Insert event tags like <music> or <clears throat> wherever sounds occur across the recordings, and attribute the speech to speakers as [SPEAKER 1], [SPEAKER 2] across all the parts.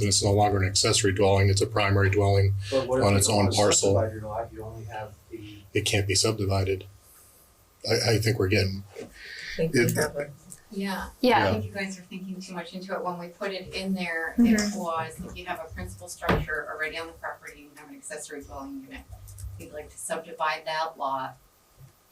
[SPEAKER 1] And it's no longer an accessory dwelling, it's a primary dwelling.
[SPEAKER 2] But what if
[SPEAKER 1] On
[SPEAKER 2] you
[SPEAKER 1] its
[SPEAKER 2] don't
[SPEAKER 1] own
[SPEAKER 2] wanna
[SPEAKER 1] parcel.
[SPEAKER 2] subdivide your lot, You only have the,
[SPEAKER 1] It can't be subdivided. I, I think we're getting,
[SPEAKER 3] think we
[SPEAKER 1] It-
[SPEAKER 3] have a-
[SPEAKER 4] Yeah,
[SPEAKER 1] Yeah.
[SPEAKER 4] I think you guys are thinking too much into it. When we put it in there, it was if you have a principal structure already on the property, you have an accessory dwelling unit. If You'd like to subdivide that lot.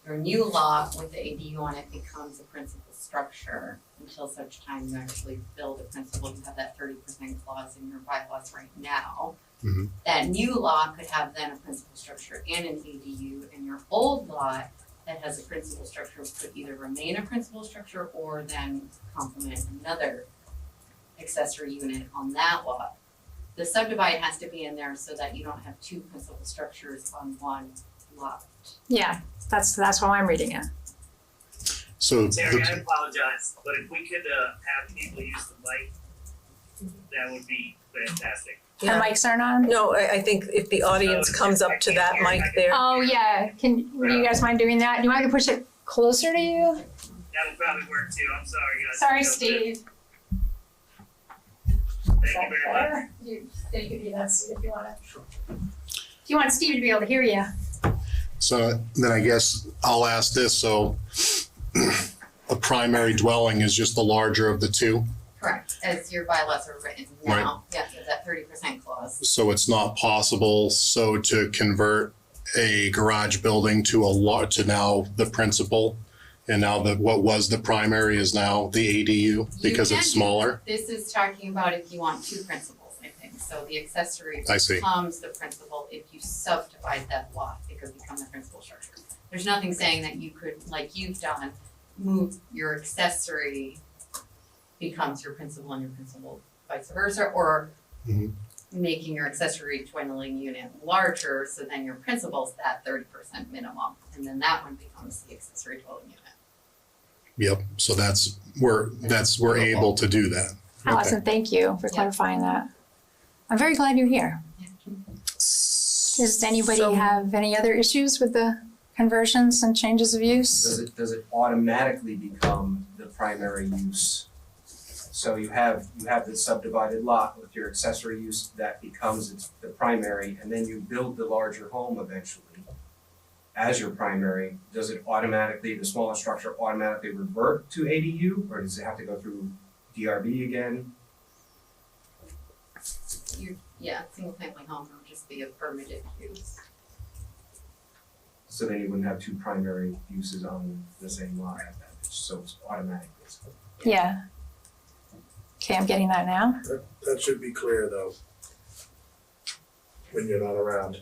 [SPEAKER 4] Your new lot with the ADU on it becomes a principal structure until such time you actually build a principal. You have that thirty percent clause in your bylaws right now.
[SPEAKER 1] Mhm.
[SPEAKER 4] That new lot could have then a principal structure and an ADU, and your old lot that has a principal structure could either remain a principal structure or then complement another accessory unit on that lot. The subdivide has to be in there so that you don't have two principal structures on one lot.
[SPEAKER 5] Yeah, that's that's how I'm reading it.
[SPEAKER 1] so,
[SPEAKER 6] Terry, I
[SPEAKER 1] the-
[SPEAKER 6] apologize, but if we could uh, have people use the mic, that would be fantastic.
[SPEAKER 5] The mics aren't on.
[SPEAKER 3] No, I, I think if the audience comes up to that mic there,
[SPEAKER 5] Oh yeah, can would you guys mind doing that? Do you want to push it closer to you?
[SPEAKER 6] That would probably work too. I'm sorry, guys.
[SPEAKER 5] Sorry, Steve. Is that
[SPEAKER 6] Thank you very much.
[SPEAKER 5] better? You, you could do that, Steve, if you want to. Do you want Steve to be able to hear you?
[SPEAKER 1] so then I guess I'll ask this, so <clears throat> a primary dwelling is just the larger of the two,
[SPEAKER 4] Correct. As your bylaws are written now, yeah, so that thirty percent clause.
[SPEAKER 1] so it's not possible, so to convert a garage building to a lot, to now the principal, and now that what was the primary is now the ADU because
[SPEAKER 4] You can
[SPEAKER 1] it's smaller?
[SPEAKER 4] This is talking about if you want two principals, I think, so the accessory
[SPEAKER 1] I see.
[SPEAKER 4] becomes the principal if you subdivide that lot, it could become the principal structure. There's nothing saying that you could, like you've done, move your accessory becomes your principal and your principal vice versa, or
[SPEAKER 1] Mhm.
[SPEAKER 4] making your accessory dwindling unit larger, so then your principal's that thirty percent minimum, and then that one becomes the accessory dwelling unit.
[SPEAKER 1] Yep, so that's, we're, that's, we're able to do that. Okay.
[SPEAKER 5] Allison, thank you for
[SPEAKER 4] Yeah.
[SPEAKER 5] clarifying that. I'm very glad you're here. Does anybody
[SPEAKER 3] So-
[SPEAKER 5] have any other issues with the conversions and changes of
[SPEAKER 7] Does
[SPEAKER 5] use?
[SPEAKER 7] it, does it automatically become the primary use? So you have, you have this subdivided lot with your accessory use that becomes its, the primary, and then you build the larger home eventually as your primary, does it automatically, the smaller structure automatically revert to ADU, or does it have to go through DRB again?
[SPEAKER 4] Your, yeah, single family home would just be a permitted use.
[SPEAKER 7] So then you wouldn't have two primary uses on the same lot at that, so it's automatic.
[SPEAKER 5] Yeah. Okay, I'm getting that now.
[SPEAKER 8] That should be clear though. When you're not around,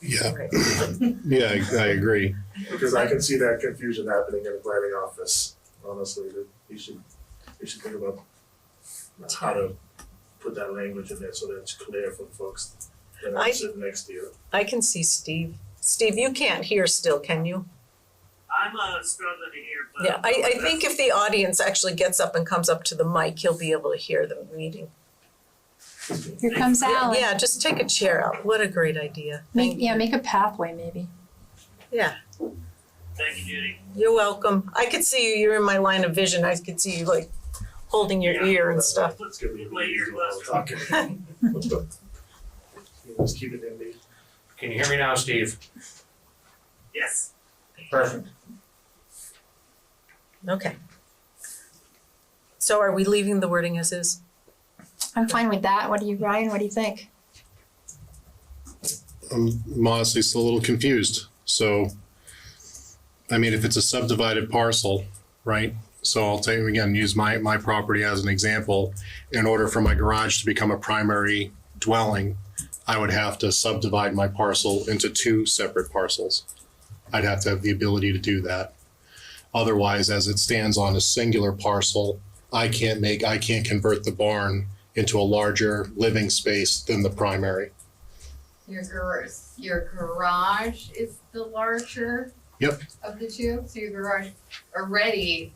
[SPEAKER 1] Yeah, yeah, I- I agree.
[SPEAKER 8] because I can see that confusion happening in the planning office, honestly, that you should, you should think about how to put that language in there so that it's clear for folks that
[SPEAKER 3] I-
[SPEAKER 8] are sitting next to you.
[SPEAKER 3] I can see Steve. Steve, you can't hear still, can you?
[SPEAKER 6] I'm uh, struggling to hear, but.
[SPEAKER 3] Yeah, I, I think if the audience actually gets up and comes up to the mic, he'll be able to hear the reading.
[SPEAKER 5] Here comes
[SPEAKER 3] Yeah,
[SPEAKER 5] Alan.
[SPEAKER 3] Yeah, just take a chair out. What a great idea.
[SPEAKER 5] Make,
[SPEAKER 3] Thank
[SPEAKER 5] Oh, yeah,
[SPEAKER 3] you.
[SPEAKER 5] make a pathway maybe.
[SPEAKER 6] Thank you, Judy.
[SPEAKER 3] You're welcome. I could see you, you're in my line of vision. I could see you like holding your
[SPEAKER 6] Yeah.
[SPEAKER 3] ear and stuff. <laughs>
[SPEAKER 8] It's gonna be
[SPEAKER 6] Wait, you're
[SPEAKER 8] easy while we're talking. <laughs> Let's keep it in the.
[SPEAKER 9] Can you hear me now, Steve?
[SPEAKER 6] Yes.
[SPEAKER 9] Perfect.
[SPEAKER 3] Okay. So are we leaving the wording as is?
[SPEAKER 5] I'm fine with that. What do you, Ryan? What do you think?
[SPEAKER 1] I'm honestly still a little confused. So, I mean, if it's a subdivided parcel, right? So I'll tell you again, use my, my property as an example. In order for my garage to become a primary dwelling, I would have to subdivide my parcel into two separate parcels. I'd have to have the ability to do that. Otherwise, as it stands on a singular parcel, I can't make, I can't convert the barn into a larger living space than the primary.
[SPEAKER 4] Your garage, your garage is the larger.
[SPEAKER 1] Yep.
[SPEAKER 4] Of the two, so your garage already,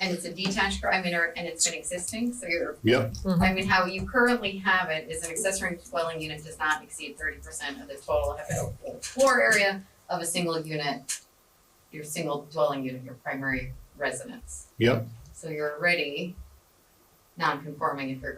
[SPEAKER 4] and it's a detached, gar- I mean, or, and it's been existing, so your.
[SPEAKER 1] Yep.
[SPEAKER 4] I mean, how you currently have it is an accessory dwelling unit does not exceed thirty percent of the total habitable floor area of a single unit. Your single dwelling unit, your primary residence,
[SPEAKER 1] Yep.
[SPEAKER 4] so you're already non-conforming if you're